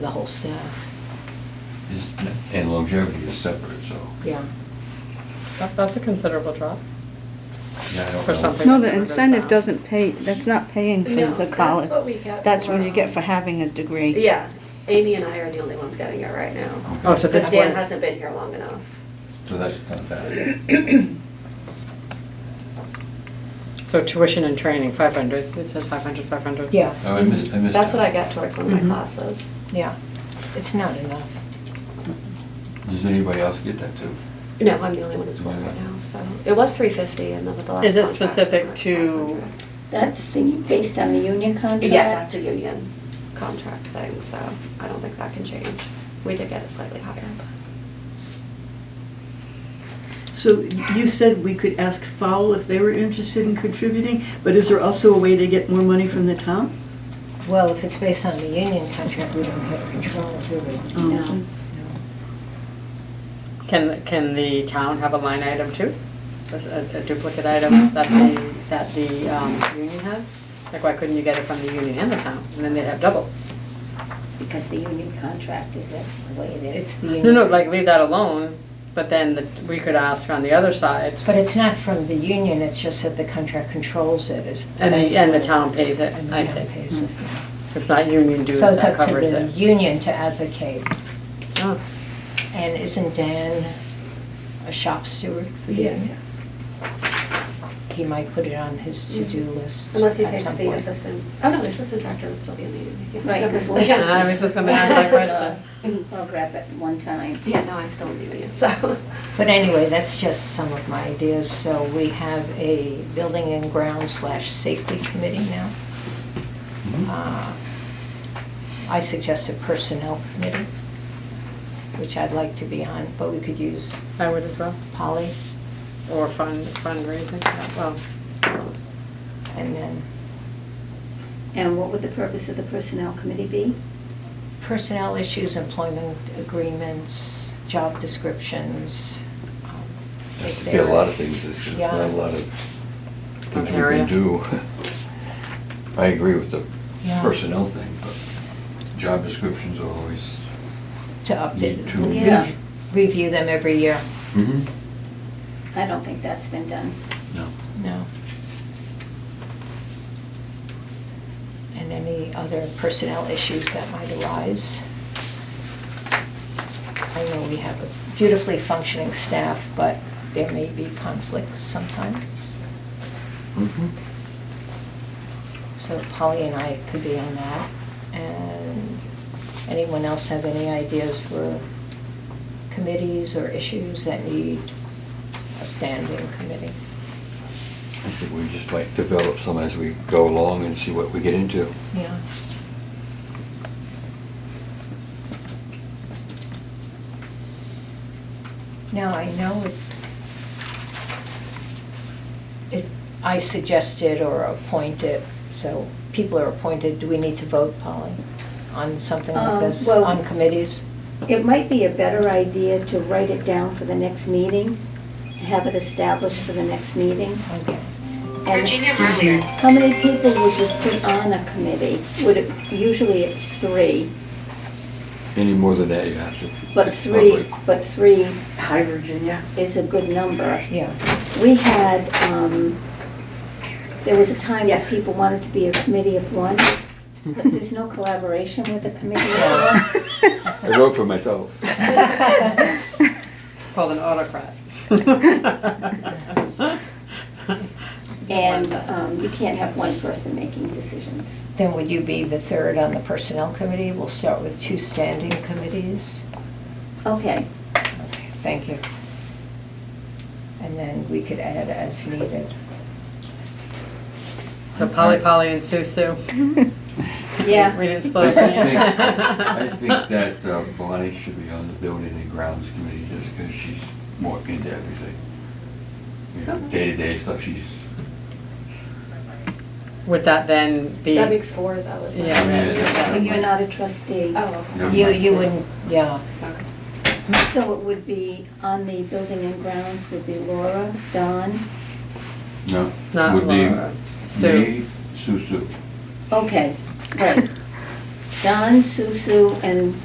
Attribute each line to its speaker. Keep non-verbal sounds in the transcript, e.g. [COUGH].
Speaker 1: the whole staff,
Speaker 2: Is- And longevity is separate, so.
Speaker 1: yeah.
Speaker 3: That- That's a considerable drop.
Speaker 2: Yeah, I don't
Speaker 3: For
Speaker 2: know.
Speaker 3: something.
Speaker 4: No, the incentive doesn't pay, that's not paying for
Speaker 5: No,
Speaker 4: the
Speaker 5: that's
Speaker 4: college.
Speaker 5: what we get
Speaker 4: That's what
Speaker 5: for,
Speaker 4: you get
Speaker 5: um,
Speaker 4: for having a degree.
Speaker 5: Yeah, Amy and I are the only ones getting it right now.
Speaker 2: Okay.
Speaker 3: Oh, so this
Speaker 5: Because
Speaker 3: is
Speaker 5: Dan
Speaker 3: where,
Speaker 5: hasn't been here long enough.
Speaker 2: So that's not bad.
Speaker 3: so tuition and training, five hundred, it says five hundred, five hundred.
Speaker 1: Yeah,
Speaker 2: Oh, I missed, I missed.
Speaker 5: That's
Speaker 2: that.
Speaker 5: what I get towards one of
Speaker 3: Mhm.
Speaker 5: my classes.
Speaker 1: yeah. It's not enough.
Speaker 2: Does anybody else get that too?
Speaker 5: No, I'm the only one who's going right now, so. It was three fifty and then with the last
Speaker 3: Is it
Speaker 5: contract, it
Speaker 3: specific
Speaker 5: went
Speaker 3: to-
Speaker 5: 500.
Speaker 6: That's the, based on the union contract?
Speaker 5: Yeah, that's a union contract thing, so I don't think that can change. We did get it slightly higher, but.
Speaker 7: So you said we could ask Fowl if they were interested in contributing, but is there also a way to get more money from the town?
Speaker 1: Well, if it's based on the union contract, we don't have control, do
Speaker 3: Mm-hmm.
Speaker 1: we?
Speaker 5: No.
Speaker 3: Can, can the town have a line item too? A a duplicate
Speaker 1: Mm-hmm.
Speaker 3: item that the, that the um, union has? Like, why couldn't you get it from the union and the town, and then they'd have double?
Speaker 6: Because the union contract is it, the way it
Speaker 1: It's
Speaker 6: is.
Speaker 1: the
Speaker 3: No,
Speaker 1: union.
Speaker 3: no, like, leave that alone, but then the- we could ask on the other side,
Speaker 1: But it's not from the union, it's just that the contract controls it. is-
Speaker 3: And the- and the town pays it,
Speaker 1: And the
Speaker 3: I
Speaker 1: town
Speaker 3: see.
Speaker 1: pays it.
Speaker 3: if not union dues,
Speaker 1: So it's
Speaker 3: that
Speaker 1: up to
Speaker 3: covers
Speaker 1: the
Speaker 3: it.
Speaker 1: union to advocate.
Speaker 3: Oh,
Speaker 1: And isn't Dan a shop steward for the
Speaker 5: Yes,
Speaker 1: union?
Speaker 5: yes.
Speaker 1: He might put it on his to-do list
Speaker 5: Unless he
Speaker 1: at
Speaker 5: takes
Speaker 1: some
Speaker 5: the
Speaker 1: point.
Speaker 5: assistant, oh no, the assistant director would still be in the union. yeah.
Speaker 6: Right.
Speaker 3: [LAUGHS]
Speaker 5: Never mind.
Speaker 3: I was just gonna
Speaker 5: [LAUGHS]
Speaker 3: ask that question.
Speaker 6: I'll grab it one time.
Speaker 5: Yeah, no, I'm still in the union, so.
Speaker 1: But anyway, that's just some of my ideas. So we have a building and ground slash safety committee now.
Speaker 2: Hmm? Mm-hmm.
Speaker 1: Uh, I suggest a personnel committee, which I'd like to be on, but we could use
Speaker 3: I would as well,
Speaker 1: Polly
Speaker 3: or fund, fundraising, yeah, well,
Speaker 1: and then
Speaker 6: And what would the purpose of the personnel committee be?
Speaker 1: personnel issues, employment agreements, job descriptions. um,
Speaker 2: That's
Speaker 1: if
Speaker 2: to get a lot of
Speaker 1: they're-
Speaker 2: things, there's
Speaker 1: Yeah.
Speaker 2: not a lot of things we
Speaker 3: Area.
Speaker 2: can do. [LAUGHS] I agree with the
Speaker 1: Yeah.
Speaker 2: personnel thing, but job descriptions are always.
Speaker 1: To update,
Speaker 2: Need to-
Speaker 6: Yeah.
Speaker 1: rev- review them every year.
Speaker 2: Mhm.
Speaker 6: I don't think that's been done.
Speaker 2: No.
Speaker 1: No. And any other personnel issues that might arise? I know we have a beautifully functioning staff, but there may be conflicts sometimes.
Speaker 2: Mhm.
Speaker 1: So Polly and I could be on that. And anyone else have any ideas for committees or issues that need a standing committee?
Speaker 2: I think we just like develop some as we go along and see what we get into.
Speaker 1: Yeah. Now, I know it's, it, I suggested or appointed, so people are appointed, do we need to vote, Polly, on something like
Speaker 6: Um,
Speaker 1: this,
Speaker 6: well-
Speaker 1: on committees?
Speaker 6: It might be a better idea to write it down for the next meeting, have it established for the next meeting.
Speaker 1: Okay.
Speaker 6: And How many people would you put on a committee? Would it, usually it's three,
Speaker 2: Any more than that, you have to.
Speaker 6: but three,
Speaker 2: probably-
Speaker 6: but three
Speaker 7: Hi, Virginia.
Speaker 6: is a good number.
Speaker 1: Yeah,
Speaker 6: We had, um, there was a time that
Speaker 7: Yes.
Speaker 6: people wanted to be a committee of one, but there's no collaboration with a committee of one.
Speaker 2: I wrote for myself.
Speaker 3: called an autocrat. [LAUGHS]
Speaker 6: And, um, you can't have one person making decisions.
Speaker 1: then would you be the third on the personnel committee? We'll start with two standing committees.
Speaker 6: Okay,
Speaker 1: Okay, Thank you. And then we could add as needed.
Speaker 3: So Polly Polly and Sue Sue.
Speaker 6: yeah.
Speaker 3: We didn't split
Speaker 2: I
Speaker 3: it.
Speaker 2: think- I
Speaker 3: [LAUGHS]
Speaker 2: think that uh, Bonnie should be on the building and grounds committee just because she's more into everything. You know, Day-to-day stuff, she's,
Speaker 3: Would that then be?
Speaker 5: That makes four, that was. my-
Speaker 3: Yeah.
Speaker 2: Yeah.
Speaker 6: You're not a trustee.
Speaker 5: Oh,
Speaker 2: No.
Speaker 5: okay.
Speaker 1: You, you wouldn't, yeah,
Speaker 5: okay.
Speaker 6: So it would be, on the building and grounds would be Laura, Don,
Speaker 2: no,
Speaker 3: Not
Speaker 2: would be
Speaker 3: Laura. Sue.
Speaker 2: me, Sue Sue.
Speaker 6: [LAUGHS] okay, right. Don, Sue Sue, and